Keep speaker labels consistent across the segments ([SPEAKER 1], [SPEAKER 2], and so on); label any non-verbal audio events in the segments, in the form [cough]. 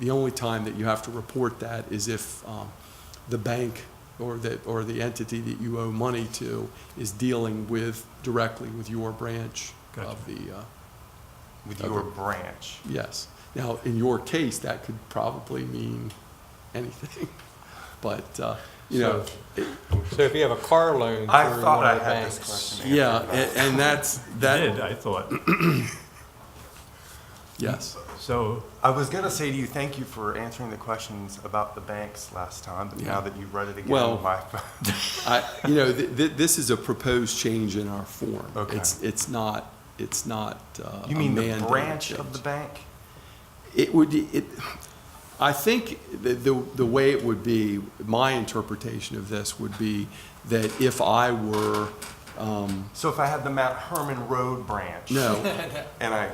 [SPEAKER 1] The only time that you have to report that is if um, the bank or the, or the entity that you owe money to is dealing with, directly with your branch of the, uh,
[SPEAKER 2] with
[SPEAKER 1] Okay.
[SPEAKER 2] your branch.
[SPEAKER 1] yes. Now, in your case, that could probably mean anything, [laughs] but, uh, you know,
[SPEAKER 3] So if you have a car loan through
[SPEAKER 2] I thought
[SPEAKER 3] one
[SPEAKER 2] I
[SPEAKER 3] of the
[SPEAKER 2] had this
[SPEAKER 3] banks.
[SPEAKER 2] question.
[SPEAKER 1] yeah, a- and that's,
[SPEAKER 4] did,
[SPEAKER 1] that,
[SPEAKER 4] I thought.
[SPEAKER 1] yes.
[SPEAKER 4] So,
[SPEAKER 2] I was gonna say to you, thank you for answering the questions about the banks last time, but
[SPEAKER 1] Yeah.
[SPEAKER 2] now that you've read it again,
[SPEAKER 1] Well- [laughs]
[SPEAKER 2] my, [laughs]
[SPEAKER 1] I, you know, th- th- this is a proposed change in our form.
[SPEAKER 2] Okay.
[SPEAKER 1] It's, it's not, it's not uh,
[SPEAKER 2] you
[SPEAKER 1] a
[SPEAKER 2] mean the
[SPEAKER 1] mandated
[SPEAKER 2] branch of
[SPEAKER 1] change.
[SPEAKER 2] the bank?
[SPEAKER 1] It would, it, I think the, the, the way it would be, my interpretation of this would be that if I were, um,
[SPEAKER 2] So if I had the Mount Herman Road branch?
[SPEAKER 1] no,
[SPEAKER 2] And I,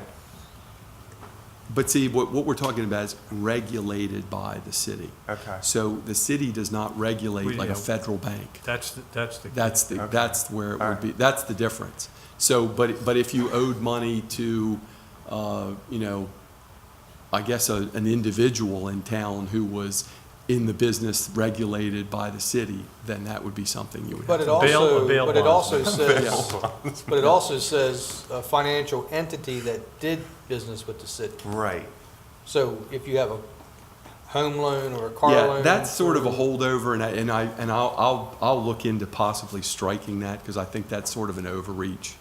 [SPEAKER 1] but see, what, what we're talking about is regulated by the city.
[SPEAKER 2] okay,
[SPEAKER 1] So the city does not regulate
[SPEAKER 4] We-
[SPEAKER 1] like a
[SPEAKER 4] yeah.
[SPEAKER 1] federal bank.
[SPEAKER 4] that's, the- that's the.
[SPEAKER 1] That's the,
[SPEAKER 2] Okay.
[SPEAKER 1] that's where it
[SPEAKER 2] All
[SPEAKER 1] would
[SPEAKER 2] right.
[SPEAKER 1] be, that's the difference. So, but, but if you owed money to, uh, you know, I guess a, an individual in town who was in the business regulated by the city, then that would be something you would
[SPEAKER 3] But
[SPEAKER 1] have.
[SPEAKER 3] it
[SPEAKER 4] a bail-
[SPEAKER 3] also,
[SPEAKER 4] a bail
[SPEAKER 3] but it
[SPEAKER 4] bond.
[SPEAKER 3] also
[SPEAKER 1] Bail
[SPEAKER 3] says, but it also says a financial entity that did business with the city.
[SPEAKER 2] right.
[SPEAKER 3] So if you have a home loan or a car loan.
[SPEAKER 1] Yeah, that's sort of a
[SPEAKER 3] through-
[SPEAKER 1] holdover and I, and I, and I'll, I'll, I'll look into possibly striking that because I think that's sort of an overreach.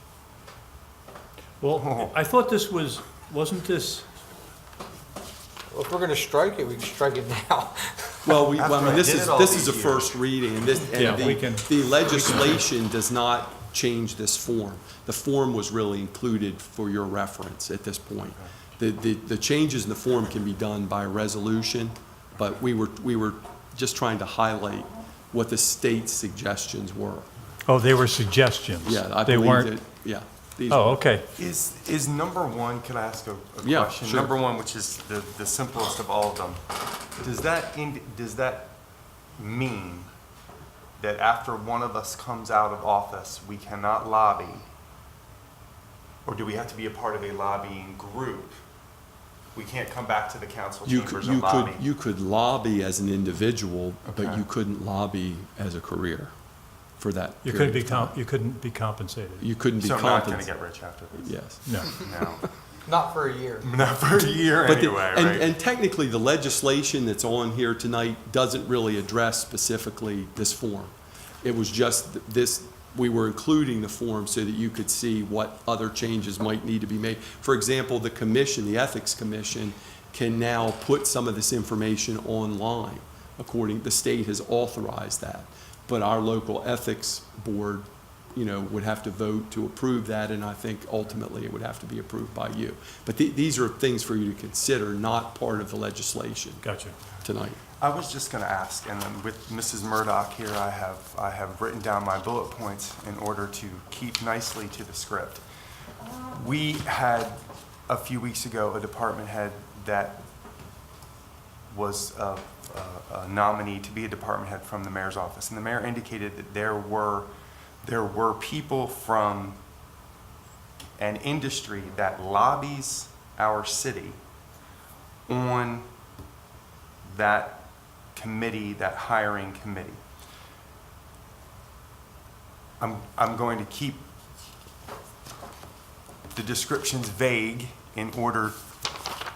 [SPEAKER 4] Well, I thought this was, wasn't this,
[SPEAKER 3] Well, If we're going to strike it, we can strike it now. [laughs]
[SPEAKER 1] Well, we,
[SPEAKER 2] After
[SPEAKER 1] I mean,
[SPEAKER 2] I
[SPEAKER 1] this
[SPEAKER 2] did
[SPEAKER 1] is,
[SPEAKER 2] it all
[SPEAKER 1] this
[SPEAKER 2] these
[SPEAKER 1] is a
[SPEAKER 2] years.
[SPEAKER 1] first reading, and this,
[SPEAKER 4] Yeah,
[SPEAKER 1] and
[SPEAKER 4] we can-
[SPEAKER 1] the, the legislation does not change this form. The form was really included for your reference at this point. The, the, the changes in the form can be done by resolution, but we were, we were just trying to highlight what the state's suggestions were.
[SPEAKER 4] oh, they were suggestions?
[SPEAKER 1] Yeah, I
[SPEAKER 4] They
[SPEAKER 1] believe that,
[SPEAKER 4] weren't,
[SPEAKER 1] yeah. these-
[SPEAKER 4] oh, okay.
[SPEAKER 2] Is, is number one, could I ask a, a
[SPEAKER 1] Yeah,
[SPEAKER 2] question?
[SPEAKER 1] sure.
[SPEAKER 2] Number one, which is the, the simplest of all of them, does that, ind- does that mean that after one of us comes out of office, we cannot lobby? Or do we have to be a part of a lobbying group? We can't come back to the council
[SPEAKER 1] You could,
[SPEAKER 2] chambers
[SPEAKER 1] you
[SPEAKER 2] and
[SPEAKER 1] could,
[SPEAKER 2] lobby?
[SPEAKER 1] you could lobby as an individual, but
[SPEAKER 2] Okay.
[SPEAKER 1] you couldn't lobby as a career for that
[SPEAKER 4] You
[SPEAKER 1] period
[SPEAKER 4] couldn't be,
[SPEAKER 1] of time.
[SPEAKER 4] comp- you couldn't be compensated.
[SPEAKER 1] You couldn't be
[SPEAKER 2] So I'm not gonna
[SPEAKER 1] compensated.
[SPEAKER 2] get rich after this.
[SPEAKER 1] Yes.
[SPEAKER 4] No.
[SPEAKER 2] No, [laughs]
[SPEAKER 3] Not for a year.
[SPEAKER 2] not for a year
[SPEAKER 1] But the-
[SPEAKER 2] anyway,
[SPEAKER 1] and,
[SPEAKER 2] right?
[SPEAKER 1] and technically, the legislation that's on here tonight doesn't really address specifically this form. It was just th- this, we were including the form so that you could see what other changes might need to be made. For example, the commission, the Ethics Commission, can now put some of this information online, according, the state has authorized that. But our local ethics board, you know, would have to vote to approve that, and I think ultimately it would have to be approved by you. But the- these are things for you to consider, not part of the legislation
[SPEAKER 4] Gotcha.
[SPEAKER 1] tonight.
[SPEAKER 2] I was just going to ask, and then with Mrs. Murdoch here, I have, I have written down my bullet points in order to keep nicely to the script. We had, a few weeks ago, a department head that was a a nominee to be a department head from the mayor's office. And the mayor indicated that there were, there were people from an industry that lobbies our city on that committee, that hiring committee. I'm, I'm going to keep the descriptions vague in order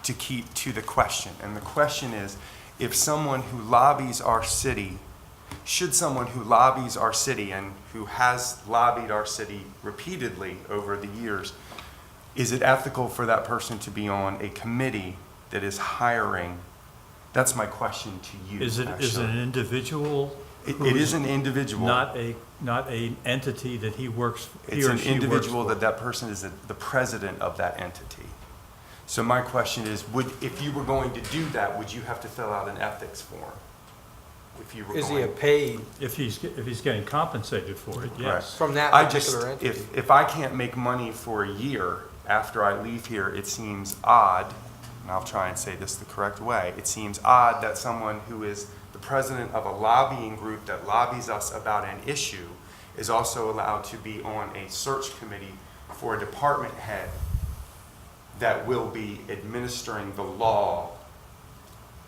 [SPEAKER 2] to keep to the question. And the question is, if someone who lobbies our city, should someone who lobbies our city and who has lobbied our city repeatedly over the years, is it ethical for that person to be on a committee that is hiring? That's my question to you,
[SPEAKER 4] Is it, is it an
[SPEAKER 2] actually.
[SPEAKER 4] individual?
[SPEAKER 2] It- It
[SPEAKER 4] who's
[SPEAKER 2] is an individual.
[SPEAKER 4] Not a, not an entity that he works, he
[SPEAKER 2] It's
[SPEAKER 4] or
[SPEAKER 2] an
[SPEAKER 4] she works
[SPEAKER 2] individual
[SPEAKER 4] for.
[SPEAKER 2] that that person is the the president of that entity. So my question is, would, if you were going to do that, would you have to fill out an ethics form? If you were
[SPEAKER 3] Is he a
[SPEAKER 2] going.
[SPEAKER 3] paid
[SPEAKER 4] If he's, ge- if he's getting compensated for it, yes.
[SPEAKER 3] from that
[SPEAKER 2] I just,
[SPEAKER 3] particular entity?
[SPEAKER 2] if, if I can't make money for a year after I leave here, it seems odd, and I'll try and say this the correct way, it seems odd that someone who is the president of a lobbying group that lobbies us about an issue is also allowed to be on a search committee for a department head that will be administering the law